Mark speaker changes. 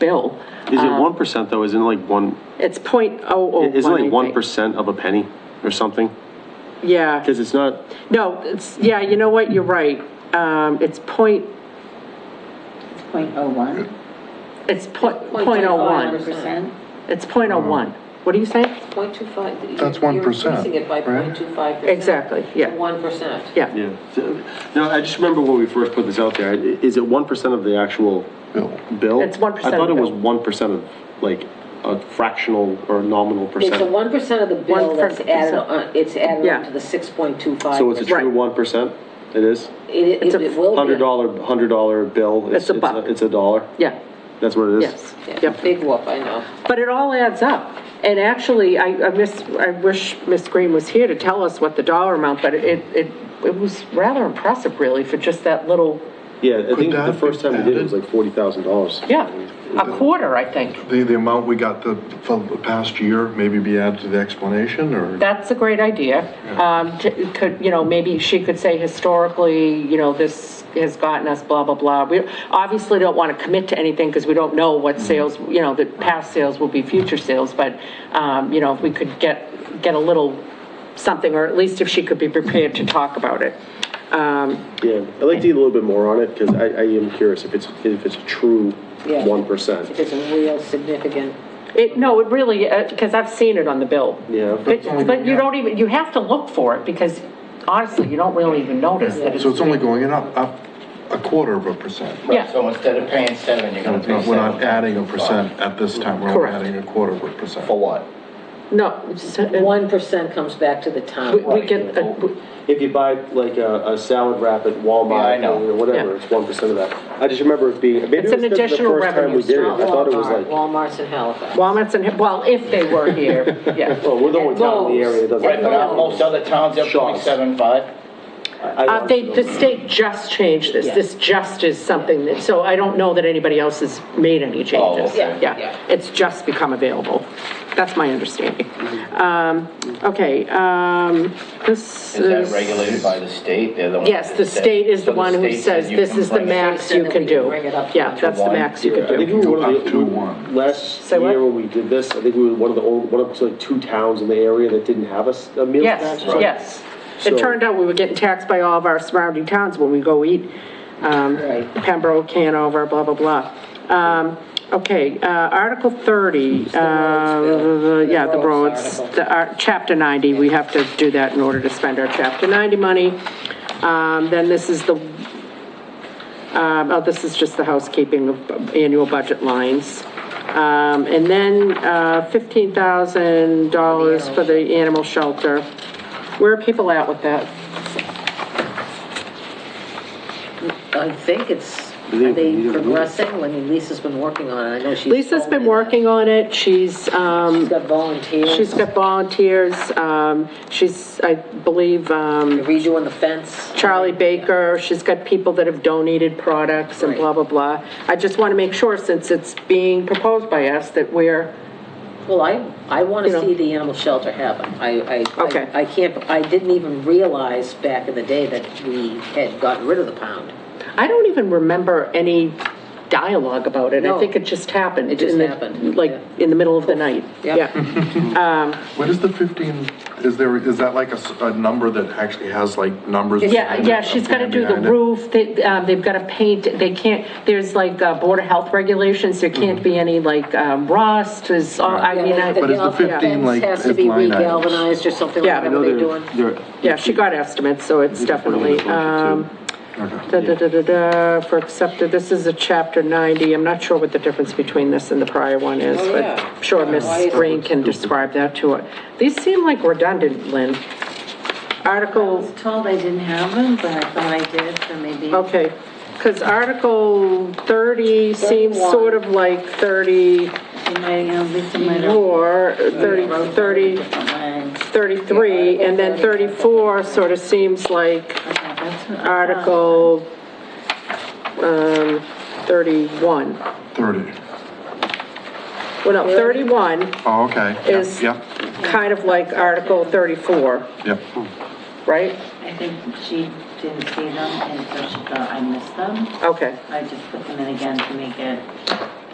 Speaker 1: bill.
Speaker 2: Is it one percent though? Isn't it like one,
Speaker 1: Um, It's point oh oh one,
Speaker 2: isn't it like
Speaker 1: I
Speaker 2: one
Speaker 1: think.
Speaker 2: percent of a penny or something?
Speaker 1: Yeah,
Speaker 2: Because it's not,
Speaker 1: no, it's, yeah, you know what, you're right. Um, it's point,
Speaker 3: Point oh one?
Speaker 1: it's point, point oh one.
Speaker 3: percent?
Speaker 1: It's point oh one.
Speaker 2: Uh-huh.
Speaker 1: What do you say?
Speaker 4: Point two five.
Speaker 5: That's 1%,
Speaker 4: You're increasing it by
Speaker 5: right?
Speaker 4: point two five percent.
Speaker 1: Exactly, yeah,
Speaker 4: One percent.
Speaker 1: yeah.
Speaker 2: yeah. So- No, I just remember when we first put this out there, i- is it one percent of the actual
Speaker 5: bill.
Speaker 2: bill?
Speaker 1: It's 1%
Speaker 2: I thought it
Speaker 1: of the
Speaker 2: was
Speaker 1: bill.
Speaker 2: one percent of, like, a fractional or nominal
Speaker 4: It's a
Speaker 2: percent.
Speaker 4: one percent of the bill that's
Speaker 1: 1%.
Speaker 4: added on, it's added
Speaker 1: Yeah.
Speaker 4: on to the six point two five.
Speaker 2: So it's a true
Speaker 1: Right.
Speaker 2: one percent? It is?
Speaker 4: It,
Speaker 1: It's
Speaker 4: it
Speaker 1: a
Speaker 4: it will be.
Speaker 2: Hundred dollar, hundred dollar bill?
Speaker 1: It's a buck.
Speaker 2: It's a dollar?
Speaker 1: Yeah,
Speaker 2: That's what it is?
Speaker 1: yes,
Speaker 4: Yeah,
Speaker 1: yep.
Speaker 4: big whoop, I know.
Speaker 1: But it all adds up. And actually, I, I miss, I wish Miss Green was here to tell us what the dollar amount, but it, it, it was rather impressive really for just that little,
Speaker 2: Yeah, I think the
Speaker 5: that be
Speaker 2: first time we did it was
Speaker 5: added?
Speaker 2: like forty thousand dollars.
Speaker 1: yeah, a quarter, I think.
Speaker 5: The, the amount we got the, for the past year, maybe be added to the explanation, or?
Speaker 1: That's a great idea. Um, j- Could, you know, maybe she could say historically, you know, this has gotten us blah, blah, blah. We obviously don't want to commit to anything because we don't know what sales, you know, the past sales will be future sales, but, um, you know, if we could get, get a little something, or at least if she could be prepared to talk about it. Um,
Speaker 2: Yeah, I'd like to eat a little bit more on it, because I, I am curious if it's, if it's a true
Speaker 4: Yeah.
Speaker 2: one percent.
Speaker 4: It's a real significant,
Speaker 1: It, no, it really, because I've seen it on the bill.
Speaker 2: Yeah.
Speaker 1: But, but you don't even, you have to look for it because honestly, you don't really even notice that it's.
Speaker 5: So it's only going up, up a quarter of a percent?
Speaker 1: Yeah.
Speaker 6: So instead of paying seven, you're gonna
Speaker 5: It's not-
Speaker 6: pay
Speaker 5: We're not
Speaker 6: seven
Speaker 5: adding a percent at this time, we're only
Speaker 1: Correct.
Speaker 5: adding a quarter of a percent.
Speaker 6: for what?
Speaker 1: No. it's-
Speaker 4: one percent comes back to the
Speaker 1: We-
Speaker 4: town.
Speaker 1: We get, a- we-
Speaker 2: Oh, If you buy like a, a salad wrap at
Speaker 6: Yeah, I
Speaker 2: Walmart
Speaker 6: know.
Speaker 2: or whatever,
Speaker 1: Yeah.
Speaker 2: it's one percent of that. I just remember it being, maybe
Speaker 1: It's
Speaker 2: it was
Speaker 1: an
Speaker 2: the the first
Speaker 1: additional
Speaker 2: time
Speaker 1: revenue
Speaker 2: we did it,
Speaker 4: Not
Speaker 2: I thought it was
Speaker 4: Walmart,
Speaker 2: like,
Speaker 4: Walmart's in Halifax.
Speaker 1: Walmart's and, well, if they were here, yeah.
Speaker 2: well, we're the only town in the area that doesn't.
Speaker 6: Right, but
Speaker 2: have
Speaker 6: aren't most other towns, they're paying
Speaker 2: Shops.
Speaker 6: seven, five?
Speaker 2: that. I- I
Speaker 1: Uh,
Speaker 2: don't
Speaker 1: they,
Speaker 2: know.
Speaker 1: the state just changed this, this just is something that, so I don't know that anybody else has made any changes.
Speaker 6: okay.
Speaker 1: Yeah,
Speaker 4: Yeah.
Speaker 1: it's just become available, that's my understanding.
Speaker 4: Mm-hmm.
Speaker 1: Um, okay, um, this is.
Speaker 6: Is that regulated by the state? They're the one
Speaker 1: Yes,
Speaker 6: that
Speaker 1: the
Speaker 6: said-
Speaker 1: state is the
Speaker 6: so
Speaker 1: one who
Speaker 6: state said
Speaker 1: says
Speaker 6: you
Speaker 1: this
Speaker 6: can
Speaker 1: is the
Speaker 6: bring it-
Speaker 1: max
Speaker 4: They said
Speaker 1: you
Speaker 4: that
Speaker 1: can
Speaker 4: we can
Speaker 1: do.
Speaker 4: bring it up to
Speaker 1: Yeah,
Speaker 4: one.
Speaker 1: that's the
Speaker 6: one.
Speaker 1: max you
Speaker 2: I
Speaker 1: can
Speaker 2: think
Speaker 1: do.
Speaker 2: we were one
Speaker 5: Up
Speaker 2: of the,
Speaker 5: to
Speaker 2: we-
Speaker 5: one.
Speaker 2: last
Speaker 1: Say what?
Speaker 2: year when we did this, I think we were one of the old, one of, like, two towns in the area that didn't have a, s- a meal
Speaker 1: Yes,
Speaker 2: tax. right?
Speaker 1: yes. It
Speaker 2: So-
Speaker 1: turned out we were getting taxed by all of our surrounding towns when we go eat, um,
Speaker 4: Right.
Speaker 1: Pembroke, Canover, blah, blah, blah. Um, okay, uh, Article 30, uh,
Speaker 4: bill.
Speaker 1: yeah, the
Speaker 4: The roads
Speaker 1: roads,
Speaker 4: article.
Speaker 1: the, our, Chapter 90, we have to do that in order to spend our Chapter 90 money. Um, then this is the, um, oh, this is just the housekeeping of annual budget lines. Um, and then, uh, $15,000 for the animal shelter. Where are people at with that?
Speaker 4: I think it's,
Speaker 2: Yeah,
Speaker 4: are
Speaker 2: you
Speaker 4: they
Speaker 2: don't know.
Speaker 4: progressing? I mean, Lisa's been working on it, I know she's.
Speaker 1: Lisa's been
Speaker 4: told me that.
Speaker 1: working on it, she's, um,
Speaker 4: She's got volunteers.
Speaker 1: she's got volunteers, um, she's, I believe, um,
Speaker 4: They're redoing the fence.
Speaker 1: Charlie Baker, she's got people that have donated products and blah, blah, blah. I just want to make sure, since it's being proposed by us, that we're,
Speaker 4: Well, I, I want
Speaker 1: You know.
Speaker 4: to see the animal shelter happen. I, I-
Speaker 1: Okay.
Speaker 4: I, I can't, I didn't even realize back in the day that we had gotten rid of the pound.
Speaker 1: I don't even remember any dialogue about it. I
Speaker 4: No.
Speaker 1: think it just happened.
Speaker 4: It just
Speaker 1: in the-
Speaker 4: happened,
Speaker 1: Like,
Speaker 4: yeah.
Speaker 1: in the middle of the night.
Speaker 4: Yep.
Speaker 1: Yeah.
Speaker 5: What is the 15, is there, is that like a, s- a number that actually has like numbers?
Speaker 1: Yeah, yeah, she's got to do the
Speaker 5: behind it?
Speaker 1: roof, they, um, they've got to paint, they can't, there's like uh, Board of Health regulations, there can't be any like um, rust, there's, all- I mean,
Speaker 4: Yeah,
Speaker 5: Mm-hmm. But
Speaker 1: I-
Speaker 5: it's the
Speaker 4: the
Speaker 5: 15 like,
Speaker 4: Fence has to
Speaker 5: it's
Speaker 4: be
Speaker 5: line items.
Speaker 4: re-galvanized or something
Speaker 1: Yeah.
Speaker 4: like
Speaker 1: I
Speaker 4: that,
Speaker 2: know
Speaker 4: what they're
Speaker 2: they're-
Speaker 4: doing.
Speaker 2: they're-
Speaker 1: yeah, she got estimates, so it's definitely, um, da, da, da, da, da, for accepted, this is a chapter 90, I'm not sure what the difference between this and the prior one is,
Speaker 4: Oh,
Speaker 1: but
Speaker 4: yeah.
Speaker 1: I'm sure
Speaker 4: Yeah, why
Speaker 1: Ms.
Speaker 4: is-
Speaker 1: Green can describe that to us. These seem like redundant, Lynn.
Speaker 3: I
Speaker 1: Article
Speaker 3: was told I didn't have them, but I thought I did, so maybe.
Speaker 1: Okay, because Article 30 seems
Speaker 4: 31.
Speaker 1: sort of like 34,
Speaker 3: You might, uh, Lisa might have.
Speaker 1: 30, 30,
Speaker 3: Different lines.
Speaker 1: 33, and then 34 sort of seems like
Speaker 3: Okay, that's what I thought.
Speaker 1: Article um, 31.
Speaker 5: 30.
Speaker 1: Well, no, 31
Speaker 5: Oh, okay. Yep,
Speaker 1: is
Speaker 5: Yep,
Speaker 1: kind of like Article 34,
Speaker 5: yep.
Speaker 1: right?
Speaker 3: I think she didn't see them, and so she thought I missed them.
Speaker 1: Okay,
Speaker 3: I just put them in again to make it